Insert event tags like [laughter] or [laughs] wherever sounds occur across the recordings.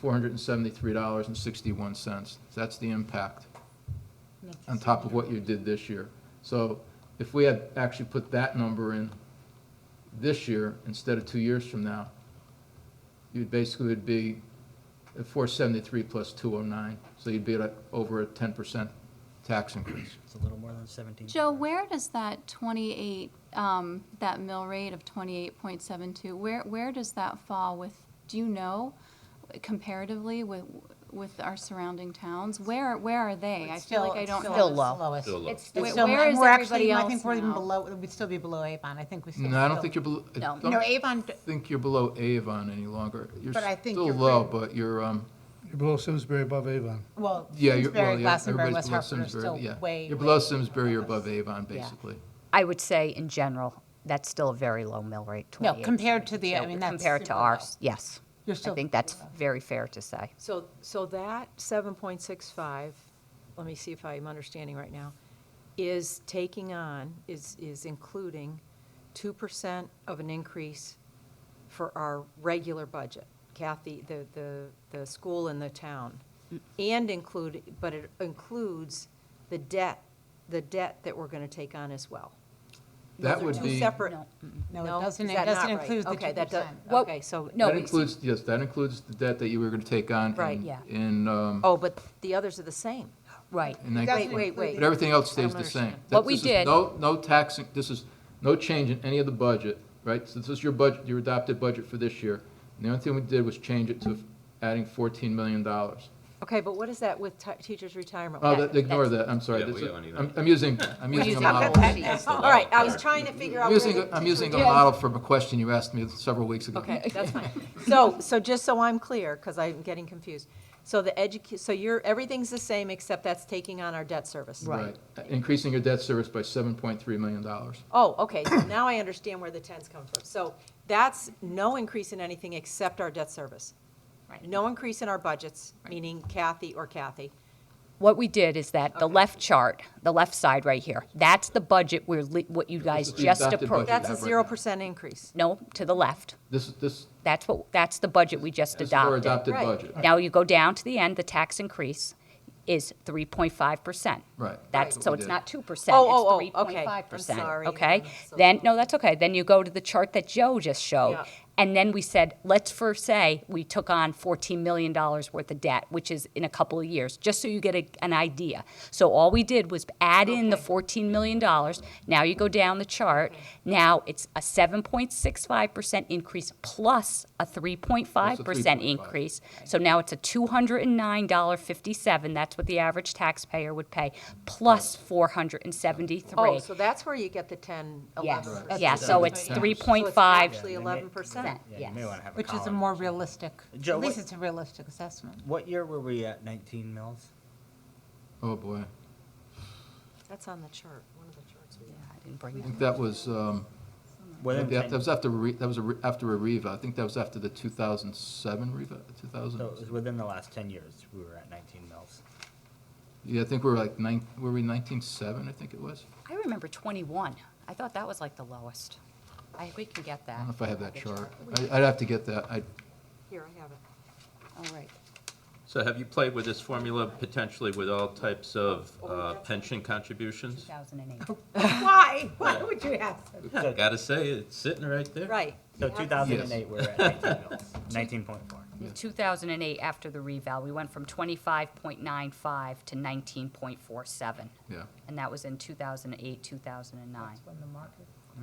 four hundred and seventy-three dollars and sixty-one cents. That's the impact on top of what you did this year. So if we had actually put that number in this year instead of two years from now, you'd basically would be at four seventy-three plus two oh nine, so you'd be at a- over a ten percent tax increase. It's a little more than seventeen. Joe, where does that 28, um, that mill rate of 28.72, where, where does that fall with, do you know comparatively with, with our surrounding towns? Where, where are they? I feel like I don't Still know. low. Lowest. Still low. Where- Still low. where And is we're actually- everybody I think else we're even now? below, we'd still be below Avon. I think we still. No, I don't still- think you're below, I No, don't no, Avon, d- think you're below Avon any longer. You're But I think still you're low, pretty- but you're, um, You're below Simsbury, above Avon. well, yeah, you're, well, Simsbury, yeah, everybody's Glastonbury, West below Hartford are still Simsbury, yeah. way. You're way- below Simsbury, you're above Avon, basically. I would say in general, that's still a very low mill rate, No, 28. compared to the, I mean, that's. Compared to super low. ours, yes. You're I still think that's very fair to say. So, so that 7.65, let me see if I'm understanding right now, is taking on, is, is including 2% of an increase for our regular budget, Kathy, the, the, the school and the town, Mm. and include, but it includes the debt, the debt that we're going to take on as well. That Those are would two be, that separate- No, No? it doesn't, Is it that not doesn't right? include the Okay, two that does- percent. Well, Okay, so. no, it's- includes, yes, that includes the debt that you were gonna take on. Right. in- Yeah. In, um, Oh, but the others are the same. Right. in that- Wait, wait, wait. But everything else I don't stays the same. understand. That- What we this is did- No, no tax, this is no change in any of the budget, right? So this is your budget, your adopted budget for this year. And the only thing we did was change it to adding $14 million. Oh, Okay, but what is that with ti- teachers' retirement? that- ignore that, I'm sorry. Yeah, we This is- don't need I'm that. I'm using, I'm using a model. All right, I was trying to figure out. I'm where using, the a- I'm using a teachers' model from a question you asked me several weeks ago. Okay, that's fine. [laughs] [laughs] So, so just so I'm clear, because I'm getting confused. So the educ, so you're, everything's the same, except that's taking on our debt service. Right. Increasing your debt service by $7.3 million. Oh, okay, so now I understand where the tens come from. So that's no increase in anything except our debt service. Right. No increase in our budgets, meaning Kathy or Kathy. What we did is that the left chart, the left side right here, that's the budget we're, li- what you guys is the just adopted approved. budget. That's a have right now. zero percent increase. No, to the left. This, this, That's what, that's the budget we just this is our adopted. adopted Right. budget. Now you go down to the end, the tax increase is 3.5%. Right. That's, so We it's did. not 2%, it's Oh, oh, oh, 3.5%. okay. I'm sorry, I'm Okay? so Then, no, sorry. that's okay. Then you go to the chart that Joe just showed. Yeah. And then we said, let's first say we took on $14 million worth of debt, which is in a couple of years, just so you get a- an idea. So all we did was add in the $14 million. Now you go down the chart. Now it's a 7.65% increase plus a 3.5% 3.5. increase. So now it's a $209.57. That's what the average taxpayer would pay, plus 473. Oh, so that's where you get the ten, Yes, eleven percent. yeah, so Right. it's Yeah. three So point it's five Actually eleven percent. percent, Yeah, yes. you may want to have a Which is a column. more realistic, Joe, at least what- it's a realistic assessment. What year were we at nineteen mills? Oh, boy. That's on the chart, one of the charts we have. I didn't bring I that. think that was, um, I think that that was after, re- that was a re- after a REVA. I think that was after the 2007 REVA, 2000. So it was within the last ten years, we were at nineteen mills. Yeah, I think we were like nine, were we 1907, I think it was? I remember twenty-one. I thought that was like the lowest. I, we can get I don't that. know if I have that chart. I- I'd have to get that. I, Here, I have it. All right. So have you played with this formula potentially with all types of Oh, uh, pension Two contributions? thousand and eight. Why? Why would you ask? Yeah, gotta say, it's sitting right there. Right. So two thousand and eight, we were at nineteen mills, nineteen point four. In two thousand and eight, after the reval, we went from twenty-five point nine five to nineteen point four seven. yeah. And that was in two thousand and eight, two thousand and nine.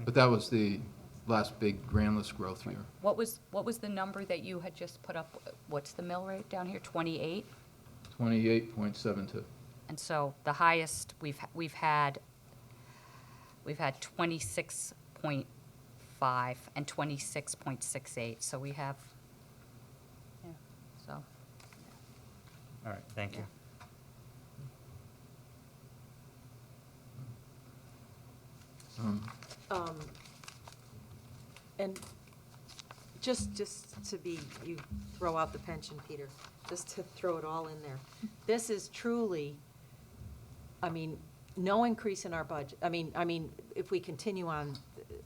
But that was the last big grand list growth year. What was, what was the number that you had just put up? What's the mill rate down here? Twenty-eight? 28.72. And so the highest we've, we've had, we've had twenty-six point five and twenty-six point six eight, so we have, yeah, so. All right, thank you. Um, Um, And just, just to be, you throw out the pension, Peter, just to throw it all in there. This is truly, I mean, no increase in our budget, I mean, I mean, if we continue on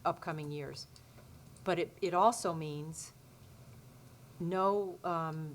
upcoming years. But it, it also means no, um,